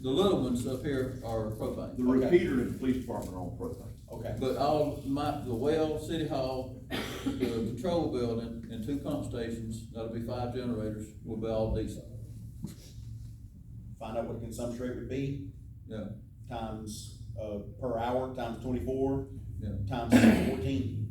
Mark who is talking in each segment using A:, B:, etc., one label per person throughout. A: The little ones up here are propane.
B: The repeater in the police department on propane.
C: Okay,
A: But all, my, the well, city hall, the patrol building, and two pump stations, that'll be five generators, will be all diesel.
C: find out what the consumption rate would be,
A: Yeah,
C: times, uh, per hour, times twenty-four,
A: yeah.
C: times fourteen.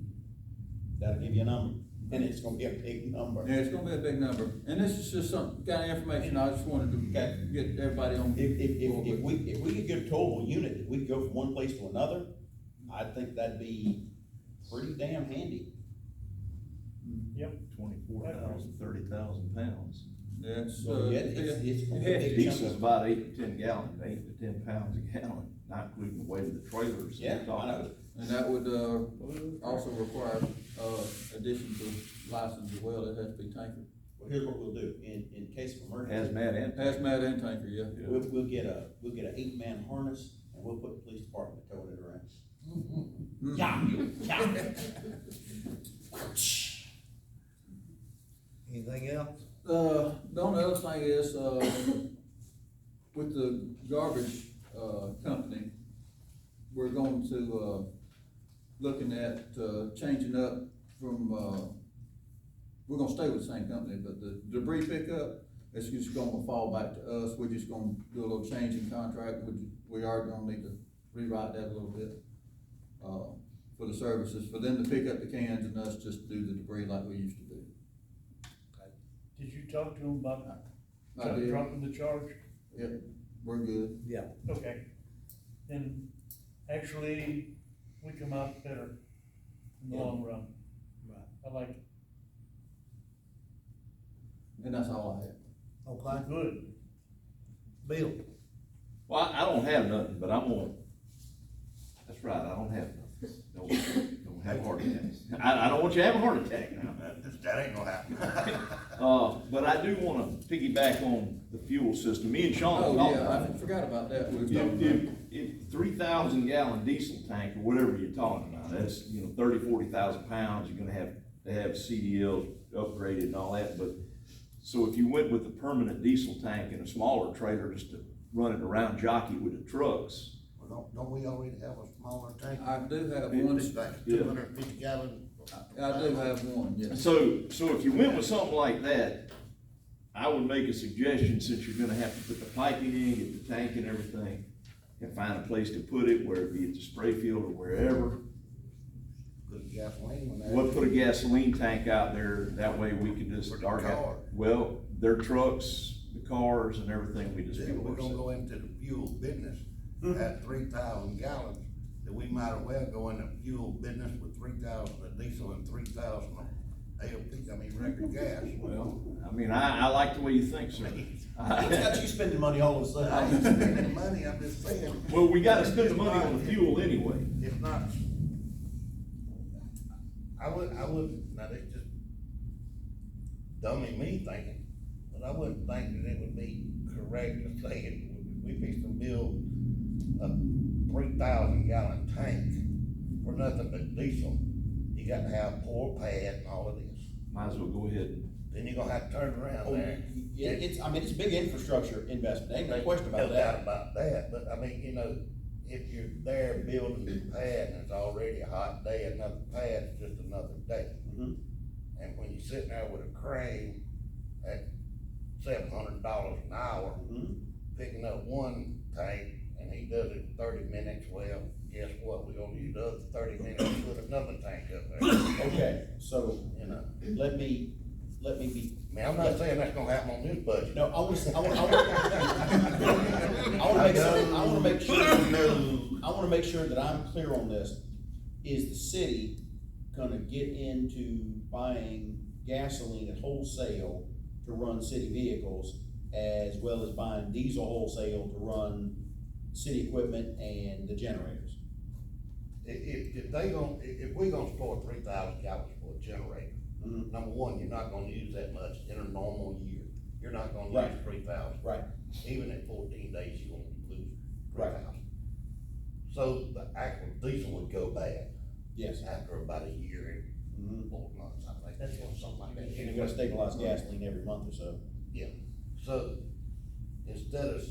C: That'll give you a number, and it's gonna be a big number.
A: Yeah, it's gonna be a big number, and this is just some kind of information, I just wanted
C: Okay.
A: to get everybody on.
C: If, if, if, if
A: board with.
C: we, if we could get a towable unit, if we could go from one place to another, I think that'd be pretty damn handy.
D: Yep.
B: Twenty-four thousand, thirty thousand pounds.
A: That's,
C: So,
A: uh,
C: yeah, it's,
A: yeah.
C: it's. gonna be a big
B: Diesel's
C: number.
B: about eight to ten gallon, eight to ten pounds a gallon, not including the weight of the trailers.
C: Yeah, I know.
A: and that would, uh, also require, uh, addition to license as well, it has to be tanker,
C: Well, here's what we'll do, in, in case of emergency,
B: Hazmat and.
A: hazmat and tanker, yeah.
C: we'll, we'll get a, we'll get an eight-man harness, and we'll put the police department towing it around.
A: Mm.
E: Anything else?
A: Uh, the only other thing is, uh, with the garbage, uh, company, we're going to, uh, looking at, uh, changing up from, uh, we're gonna stay with the same company, but the debris pickup, it's just gonna fall back to us, we're just gonna do a little change in contract, we, we are gonna need to rewrite that a little bit, uh, for the services, for them to pick up the cans and us just do the debris like we used to do.
D: Did you talk to him about
A: I did.
D: dropping the charge?
A: Yep, we're good.
E: Yeah.
D: Okay. Then actually, we come out better in the
A: Yeah.
D: long run.
E: Right.
D: I like,
A: And that's all I have.
E: Okay,
D: good.
E: Bill,
B: Well, I- I don't have nothing, but I'm gonna, that's right, I don't have nothing. Don't, don't have heart attacks. I, I don't want you to have a heart attack now.
F: That ain't gonna happen.
B: Uh, but I do wanna piggyback on the fuel system. Me and Sean talked
A: Oh,
B: about
A: yeah,
B: it.
A: I forgot about that. We were
B: If,
A: talking
B: if,
A: about-
B: if three thousand gallon diesel tank or whatever you're talking about, that's, you know, thirty, forty thousand pounds, you're gonna have to have CDLs upgraded and all that, but, so if you went with a permanent diesel tank and a smaller trailer just to run it around jockey with the trucks,
F: Well, don't, don't we already have a smaller tank?
A: I do have
B: It-
A: one,
B: yeah.
F: Two hundred and fifty gallon.
A: I do have one, yes.
B: So, so if you went with something like that, I would make a suggestion, since you're gonna have to put the piping in, get the tank and everything, and find a place to put it, whether it be at the spray field or wherever.
F: Good gasoline when that.
B: We'll put a gasoline tank out there, that way we can just.
F: For the
B: our ga-
F: car.
B: Well, their trucks, the cars and everything, we just
F: If
B: fuel
F: we're gonna
B: ourselves.
F: go into the fuel business
B: Hmm.
F: at three thousand gallons, then we might as well go into fuel business with three thousand of diesel and three thousand of ALP, I mean, regular gas.
B: Well, I mean, I, I like the way you think, sir.
C: It's got you spending money all of a
F: I ain't
C: sudden.
F: spending money, I'm just saying.
B: Well, we gotta spend the money on the fuel anyway.
F: If not, I would, I would, now that's just dummy me thinking, but I wouldn't think that it would be correct to say it, we fixed to build a three thousand gallon tank for nothing but diesel. You got to have pour pad and all of this,
B: Might as well go ahead and
F: then you're gonna have to turn around there.
C: Oh, Yeah, it's, I mean, it's a big infrastructure investment, ain't no question about
F: No doubt
C: that.
F: about that, but I mean, you know, if you're there building a pad and it's already a hot day, another pad's just another day.
C: Mhm.
F: And when you're sitting there with a crane at seven hundred dollars an hour,
C: Mhm.
F: picking up one tank, and he does it in thirty minutes, well, guess what, we are gonna use the other thirty minutes to put another tank up there,
C: Okay, so
F: you know?
C: let me, let me be,
F: I mean, I'm not saying that's gonna happen on this budget.
C: no, I wanna, I wanna, I wanna. I wanna make sure, I wanna make sure. I wanna make sure that I'm clear on this. Is the city gonna get into buying gasoline at wholesale to run city vehicles as well as buying diesel wholesale to run city equipment and the generators?
F: If, if, if they gon' if, if we gonna store three thousand gallons for a generator,
C: Mhm.
F: number one, you're not gonna use that much in a normal year. You're not gonna use
C: Right.
F: three thousand,
C: Right.
F: even at fourteen days, you won't lose three
C: Right.
F: thousand. So the actual diesel would go bad
C: Yes.
F: after about a year
C: Mhm.
F: and four months, I think,
D: That's
F: or something like
C: And you're
F: that.
C: gonna stabilize gasoline every month or so.
F: Yeah, so instead of